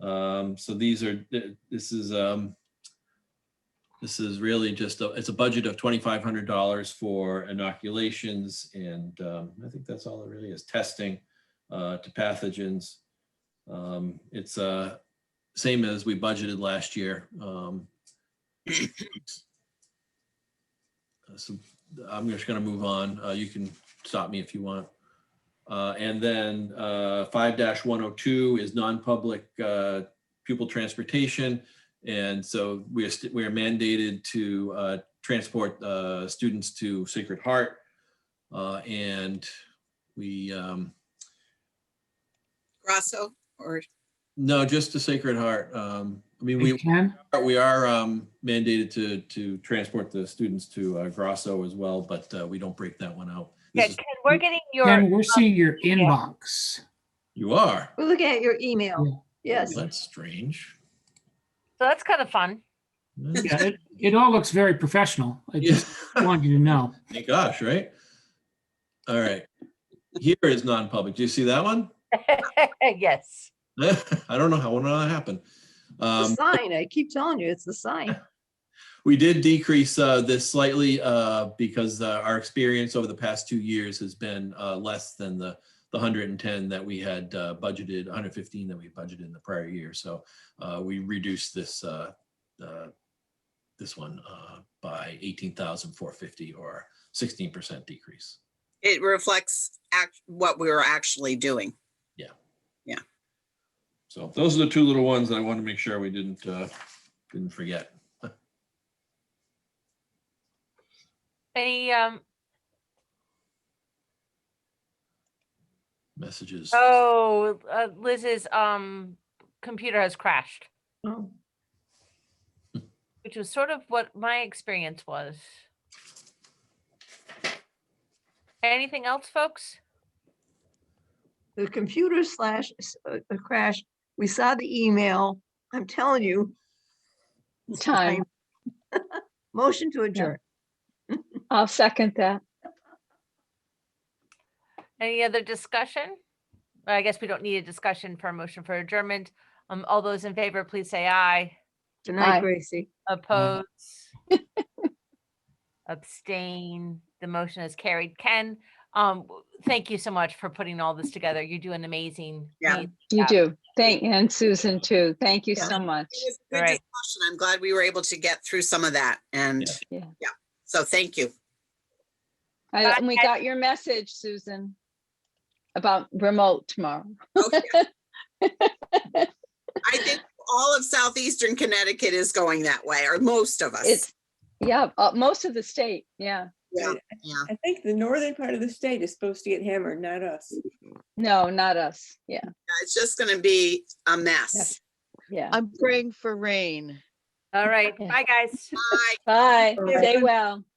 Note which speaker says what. Speaker 1: Um, so these are, th- this is, um, this is really just, a- it's a budget of twenty-five hundred dollars for inoculations and, um, I think that's all it really is, testing, uh, to pathogens. Um, it's, uh, same as we budgeted last year. Um, so I'm just gonna move on. Uh, you can stop me if you want. Uh, and then, uh, five one oh two is non-public, uh, pupil transportation. And so we are, st- we are mandated to, uh, transport, uh, students to Sacred Heart. Uh, and we, um,
Speaker 2: Grasso or
Speaker 1: no, just to Sacred Heart. Um, I mean, we,
Speaker 3: You can?
Speaker 1: are- we are um, mandated to, to transport the students to uh, Grosso as well, but uh, we don't break that one out.
Speaker 4: Yeah,
Speaker 1: This is-
Speaker 4: Ken, we're getting
Speaker 3: Ken,
Speaker 4: your,
Speaker 3: we're seeing your inbox.
Speaker 1: You are?
Speaker 5: We're looking at your email. Yes.
Speaker 1: That's strange.
Speaker 4: so that's kind of fun.
Speaker 3: Yeah, it, it all looks very professional. I
Speaker 1: Yeah.
Speaker 3: just wanted you to know.
Speaker 1: My gosh, right? All right. Here is non-public. Do you see that one?
Speaker 4: Yes.
Speaker 1: I don't know how, I don't know how that happened.
Speaker 5: The
Speaker 1: Um,
Speaker 5: sign, I keep telling you, it's the sign.
Speaker 1: We did decrease uh, this slightly uh, because uh, our experience over the past two years has been uh, less than the the 110 that we had uh, budgeted, 115 that we budgeted in the prior year. So uh, we reduced this uh, uh, this one uh, by 18,450 or 16% decrease.
Speaker 2: it reflects act, what we were actually doing.
Speaker 1: So those are the two little ones that I wanted to make sure we didn't uh, didn't forget.
Speaker 4: Any, um,
Speaker 1: Messages.
Speaker 4: oh, uh, Liz's, um, computer has crashed,
Speaker 5: Oh,
Speaker 4: which was sort of what my experience was. Anything else, folks?
Speaker 5: The computer slash s- uh, uh, crash, we saw the email. I'm telling you,
Speaker 6: Time.
Speaker 5: motion to adjourn.
Speaker 6: I'll second that.
Speaker 4: Any other discussion? I guess we don't need a discussion for a motion for adjournment. Um, all those in favor, please say aye.
Speaker 5: Good
Speaker 6: Aye.
Speaker 5: night, Gracie.
Speaker 4: Oppose. Abstain. The motion is carried. Ken, um, w- thank you so much for putting all this together. You do an amazing.
Speaker 2: Yeah.
Speaker 4: amazing
Speaker 6: You
Speaker 4: job.
Speaker 6: do. Thank, and Susan too. Thank you
Speaker 5: Yeah.
Speaker 6: so much.
Speaker 2: It was a good
Speaker 4: Right.
Speaker 2: discussion. I'm glad we were able to get through some of that and
Speaker 6: Yeah. Yeah.
Speaker 2: yeah, so thank you.
Speaker 6: I-
Speaker 4: Bye,
Speaker 6: and we
Speaker 4: Ken.
Speaker 6: got your message, Susan, about remote tomorrow.
Speaker 2: Okay. I think all of southeastern Connecticut is going that way, or most of us.
Speaker 6: It's, yeah, uh, most of the state. Yeah.
Speaker 2: Yeah, yeah.
Speaker 7: I think the northern part of the state is supposed to get hammered, not us.
Speaker 6: No, not us. Yeah.
Speaker 2: It's just gonna be a mess.
Speaker 6: Yes. Yeah.
Speaker 8: I'm praying for rain.
Speaker 4: All right.
Speaker 6: Okay.
Speaker 4: Bye, guys.
Speaker 2: Bye.
Speaker 6: Bye.
Speaker 5: Bye.
Speaker 6: Stay well.